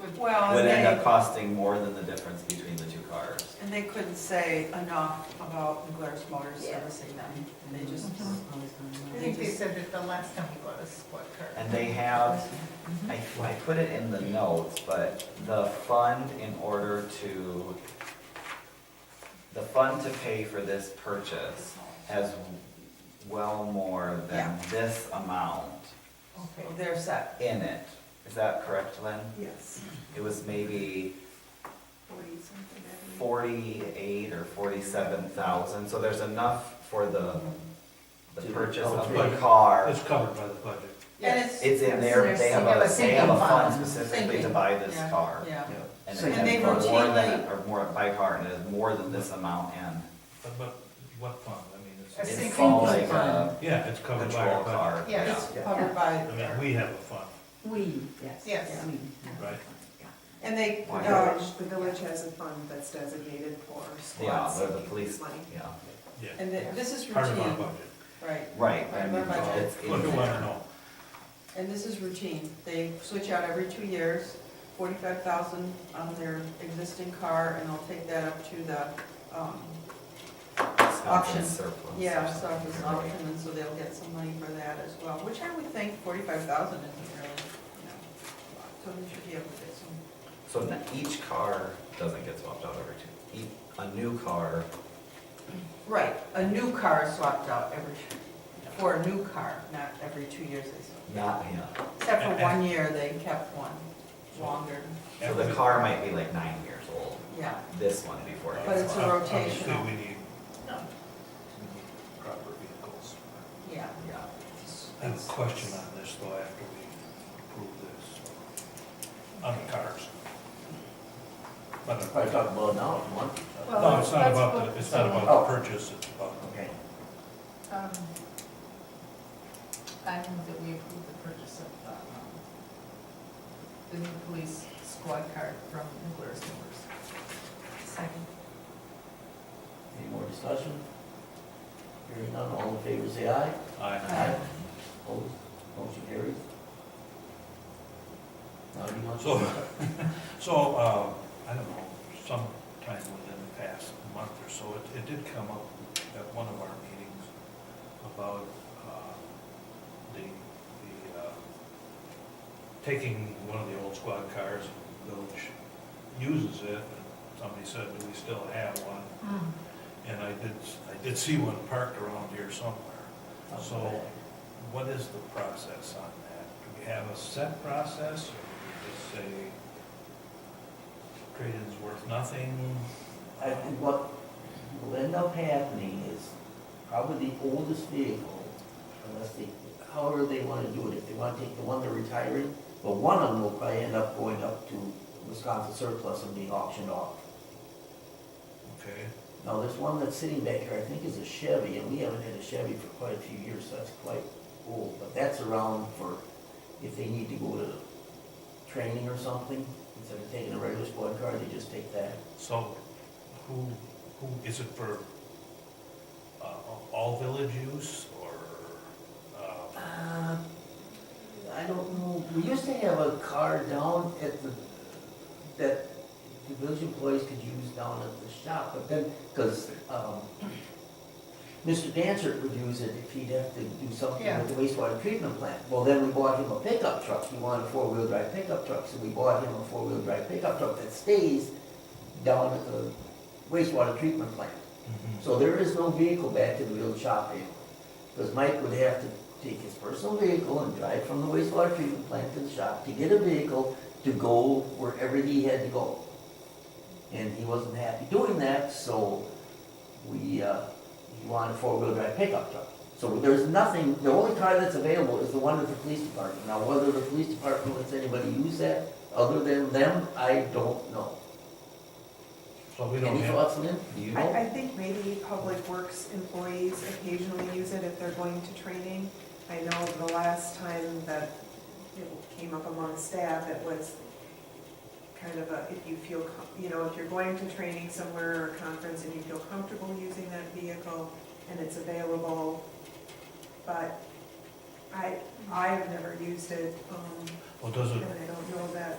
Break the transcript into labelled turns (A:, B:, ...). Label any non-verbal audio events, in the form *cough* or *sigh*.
A: would,
B: Well,
C: would end
B: and
C: up
B: they,
C: costing more than the difference between the two cars.
B: and they couldn't say enough about McGuire's Motors
A: Yeah.
B: servicing them, and they just,
A: I think they said that the last time we bought a squad car.
C: And they have, I, I put it in the notes, but the fund in order to, the fund to pay for this purchase has well more than this amount
A: Okay,
B: they're set.
C: in it. Is that correct, Lynn?
B: Yes.
C: It was maybe
A: forty something, I think.
C: forty-eight or forty-seven thousand, so there's enough for the, the purchase of the
D: Okay.
C: car.
D: It's covered by the budget.
B: And
A: Yes.
C: It's in there, they have a, they have a fund specifically to buy this
B: Yeah,
C: car.
B: Yeah,
C: And
B: So- And
C: it
B: they
C: has more than,
B: routinely-
C: or more, by car, and it has more than this amount in.
D: But, but what fund? I mean,
A: A
D: it's,
A: sink-
C: It's
A: sinking
C: called like a
E: fund.
D: yeah, it's covered by
C: patrol
D: our budget.
C: car.
A: Yeah,
B: it's covered by,
D: I mean, we have a fund,
E: We, yes.
A: Yes.
E: We.
D: Right.
B: and they,
C: Why
B: um,
F: The village has a fund that's designated for
C: Yeah,
F: squad
C: they're the
F: savings
C: police,
F: money.
C: yeah.
D: yeah,
B: and the- this is
D: part of our
B: routine,
D: budget.
B: right,
C: Right,
B: Part
C: I
B: of
C: mean,
B: our budget.
C: it's in
D: What do you want to
C: there.
D: know?
B: and this is routine, they switch out every two years, forty-five thousand on their existing car, and they'll take that up to the, um,
C: It's not
B: Auction.
C: in surplus or
B: Yeah, so
C: something,
B: it's
C: you're right.
B: auction, and so they'll get some money for that as well, which I would think forty-five thousand isn't really, you know, a lot. so they should be able to get some.
C: So n- each car doesn't get swapped out every two, e- a new car,
B: Right, a new car is swapped out every, for a new car, not every two years they swap.
C: not, yeah.
B: Except for one year, they kept one longer,
C: So the
D: Every-
C: car might be like nine years old,
B: yeah.
C: this one before it
B: But
C: gets
B: it's a
C: swapped.
D: Obviously,
B: rotational.
D: we need proper vehicles.
B: Yeah.
C: Yeah.
D: I have a question on this though, after we approve this, on the cars. But the-
G: Probably talk about now if you want.
A: Well,
D: No, it's not
A: that's
D: about,
A: what-
D: the. it's not about
G: Oh.
D: the purchase, it's about the
G: Okay.
A: Um, I move that we approve the purchase of, um, the new police squad car from Nuclear Stores. Second.
G: Any more discussion? Hearing none, all in favor, say aye.
D: I-
B: Aye.
G: Opposed, motion carries. Now, do you want to?
D: So, *laughs* so, uh, I don't know, sometime within the past month or so, it, it did come up at one of our meetings about, uh, the, the, uh, taking one of the old squad cars, and the village uses it, and somebody said, do we still have one? And I did, I did see one parked around here somewhere. So what is the process on that? Do we have a set process, or do we just say trade-in's worth nothing?
G: I think what will end up happening is probably the oldest vehicle, unless they, however they want to do it, if they want to take the one they're retiring, but one of them will probably end up going up to Wisconsin surplus and being auctioned off.
D: Okay,
G: Now, there's one that's sitting back here, I think is a Chevy, and we haven't had a Chevy for quite a few years, so that's quite old, but that's around for if they need to go to training or something, instead of taking a regular squad car, they just take that.
D: so who, who, is it for uh, all village use, or, uh,
G: Uh, I don't know, we used to have a car down at the, that the village employees could use down at the shop, but then, because, um, Mr. Dancer would use it if he'd have to do something
A: Yeah.
G: with the wastewater treatment plant. Well, then we bought him a pickup truck, he wanted a four-wheel drive pickup truck, so we bought him a four-wheel drive pickup truck that stays down at the wastewater treatment plant.
D: Mm-hmm.
G: So there is no vehicle back to the village shop anymore, because Mike would have to take his personal vehicle and drive from the wastewater treatment plant to the shop to get a vehicle to go wherever he had to go. And he wasn't happy doing that, so we, uh, he wanted a four-wheel drive pickup truck. So there's nothing, the only car that's available is the one at the police department. Now, whether the police department lets anybody use that other than them, I don't know.
D: so we don't
G: Any
D: have,
G: thoughts, Lynn? Do you know?
F: I, I think maybe public works employees occasionally use it if they're going to training. I know the last time that it came up among staff, it was kind of a, if you feel, com- you know, if you're going to training somewhere or a conference and you feel comfortable using that vehicle and it's available, but I, I've never used it, um,
D: well, does it,
F: and I don't know that